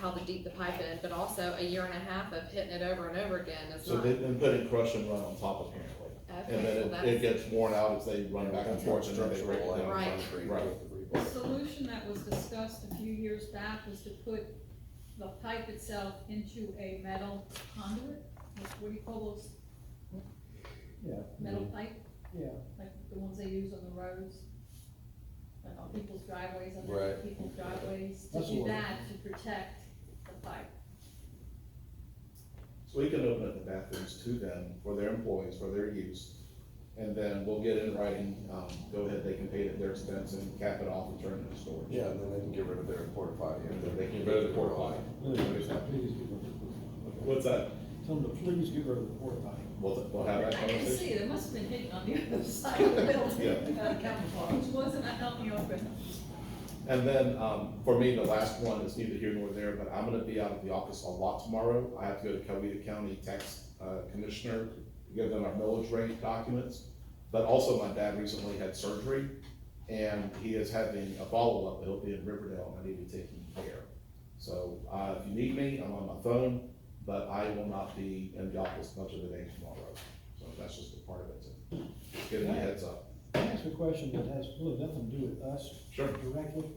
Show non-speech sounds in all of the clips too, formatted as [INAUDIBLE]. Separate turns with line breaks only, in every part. how the deep the pipe is, but also a year and a half of hitting it over and over again is
So
not.
they've been putting crush and run on top apparently. And
Okay,
then
well,
it, it
that's,
gets worn out as they run back and forth and then they break it down.
Right.
Right.
The
Right.
solution that was discussed a few years back was to put the pipe itself into a metal conduit, like, what do you call those?
Yeah.
Metal pipe,
Yeah,
like the ones they use on the roads, like on people's driveways, on
Right.
people's driveways, to
That's
do
what-
that, to protect the pipe.
So we can open up the bathrooms to them for their employees, for their use. And then we'll get in writing, um, go ahead, they can pay it at their expense and cap it off and turn it into storage.
Yeah, and then they can get rid of their porta potty.
And then they can go to the port potty.
please get rid of the porta potty.
What's that?
Tell them to please get rid of the porta potty.
We'll, we'll have
I
that
can
conversation.
see, there must have been hidden on the other side of the building,
Yeah.
uh, [LAUGHS] camouflage, wasn't helping open.
And then, um, for me, the last one is neither here nor there, but I'm gonna be out of the office a lot tomorrow. I have to go to Coweta County Tax uh, Commissioner, to give them our millage rate documents. But also, my dad recently had surgery, and he is having a follow-up, it'll be in Riverdale, and I need to take him there. So, uh, if you need me, I'm on my phone, but I will not be in the office much of the day tomorrow. So that's just a part of it, so, just giving you a heads up.
Can I ask a question that has really nothing to do with us
Sure.
directly?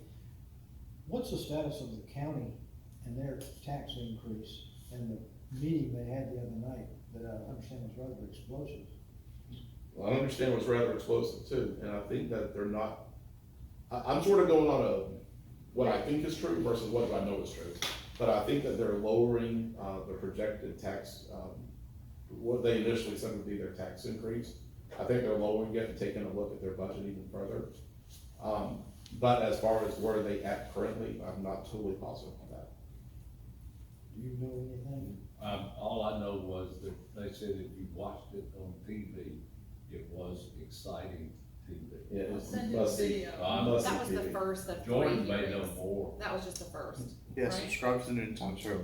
What's the status of the county and their tax increase and the meeting they had the other night that I understand was rather explosive?
Well, I understand was rather explosive too, and I think that they're not, I, I'm sort of going on a, what I think is true versus what I know is true. But I think that they're lowering, uh, the projected tax, um, what they initially said would be their tax increase. I think they're lowering it and taking a look at their budget even further. Um, but as far as where they at currently, I'm not totally positive on that.
Do you know anything?
Um, all I know was that they said if you watched it on TV, it was exciting TV.
Yeah,
I'll
it's
send you a
must be-
video.
Um,
must
that was
be
the
TV.
first of three
Jordan made no
hearings.
more.
That was just the
[LAUGHS]
first. [LAUGHS]
Yeah,
Right.
subscribe to the Newtown Show.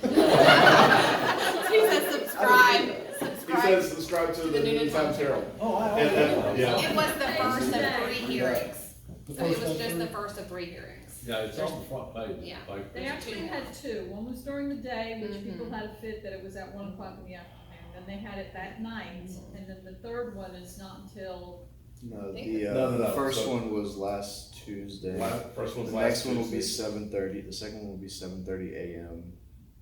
He says subscribe,
He
subscribe.
says subscribe to
To
the
the
New
Noonan
Time
Times.
Herald.
Oh, I,
And
okay.
then, yeah.
It was the first of three hearings.
The
So it
first
was just
one.
the first of three hearings.
Yeah, it's on the front page of the
Yeah.
paper.
They actually had two, one was during the day, which people
Mhm.
had a fit that it was at one o'clock in the afternoon, then they had it that night, and then the third one is not until,
No,
the,
the,
uh, No, no, no,
the first
so-
one was last Tuesday.
Last- First
The
one's last
next one will be
Tuesday.
seven thirty, the second one will be seven thirty AM,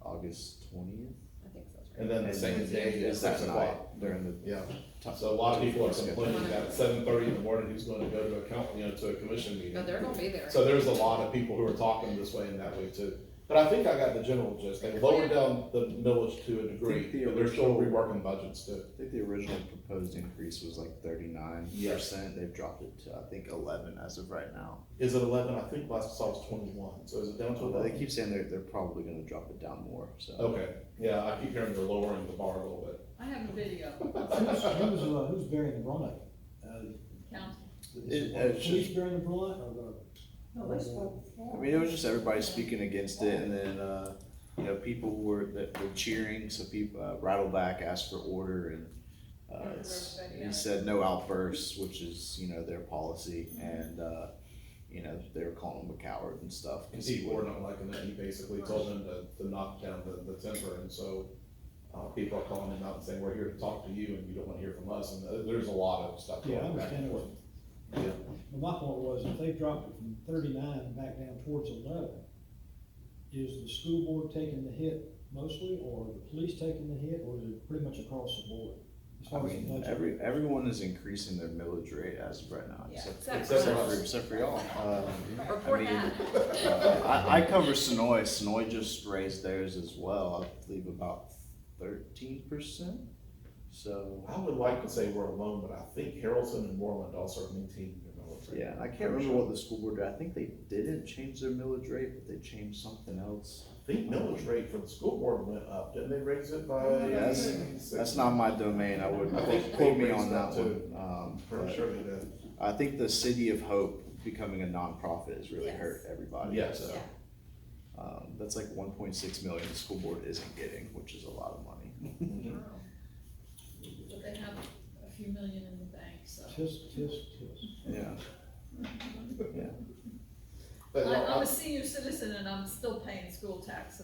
August twentieth.
I think so, that's right.
And then the second day is six
that night
o'clock.
during the.
Yeah,
top-
so a lot of people are
schedule.
complaining that at seven thirty in the morning, who's gonna go to a count, you know, to a commission
No,
meeting.
they're gonna be there.
So there's a lot of people who are talking this way and that way too. But I think I got the general gist. They lowered down the millage to a degree, but they're still reworking budgets too.
I think the original proposed increase was like thirty-nine percent, they've dropped it to, I think, eleven as of right now.
Is it eleven? I think last I saw it was twenty-one, so is it down to
Although They
eleven?
keep saying they're, they're probably gonna drop it down more, so.
Okay, yeah, I keep hearing they're lowering the bar a little bit.
I have a video,
Who's, who's, uh, who's bearing the brunt of it? Uh,
count.
is
It-
the
it's
police
just-
bearing the brunt or the?
No, they spoke.
I mean, it was just everybody speaking against it, and then uh, you know people were the, the cheering. So people uh, Rattleback asked for order, and uh, it's- he said no outbursts, which is you know their policy, and uh, you know they were calling him a coward and stuff.
And
'cause he
Steve
wouldn't-
Warren, I'm liking that, he basically told them to, to knock down the, the timber, and so, uh, people are calling him out and saying, we're here to talk to you, and you don't wanna hear from us, and th- there's a lot of stuff
Yeah, I
going back and
understand.
forth.
Well, my point was, if they dropped it from thirty-nine back down towards eleven, is the school board taking the hit mostly, or the police taking the hit, or is it pretty much across the board? As
I
far as the
mean,
budget?
every everyone is increasing their millage rate as of right now,
Yeah.
except,
Except
for
except,
us.
for, except for y'all. Um, I
Report
mean,
that.
Uh, I, I cover Sonoy. Sonoy just raised theirs as well. I believe about thirteen percent. So
I would like to say we're alone, but I think Harrelson and Moreland also are maintaining their military.
yeah, and I can't remember what the school board did. I think they didn't change their millage rate, but they changed something else.
I think millage rate for the school board went up, didn't they raise it by?
Yes. That's not my domain. I wouldn't
I think
quote me
Hope
on
raised
that
that too.
one. Um,
Pretty
but
sure they did.
I think the city of Hope becoming a nonprofit has really
Yes.
hurt everybody.
Yes.
So, um, that's like one point six million the school board isn't getting, which is a lot of money. [LAUGHS]
But they have a few million in the bank, so.
Tisk, tisk, tisk.
yeah.
But
I-
no, I- uh,
I'm a senior citizen and I'm still paying school tax, so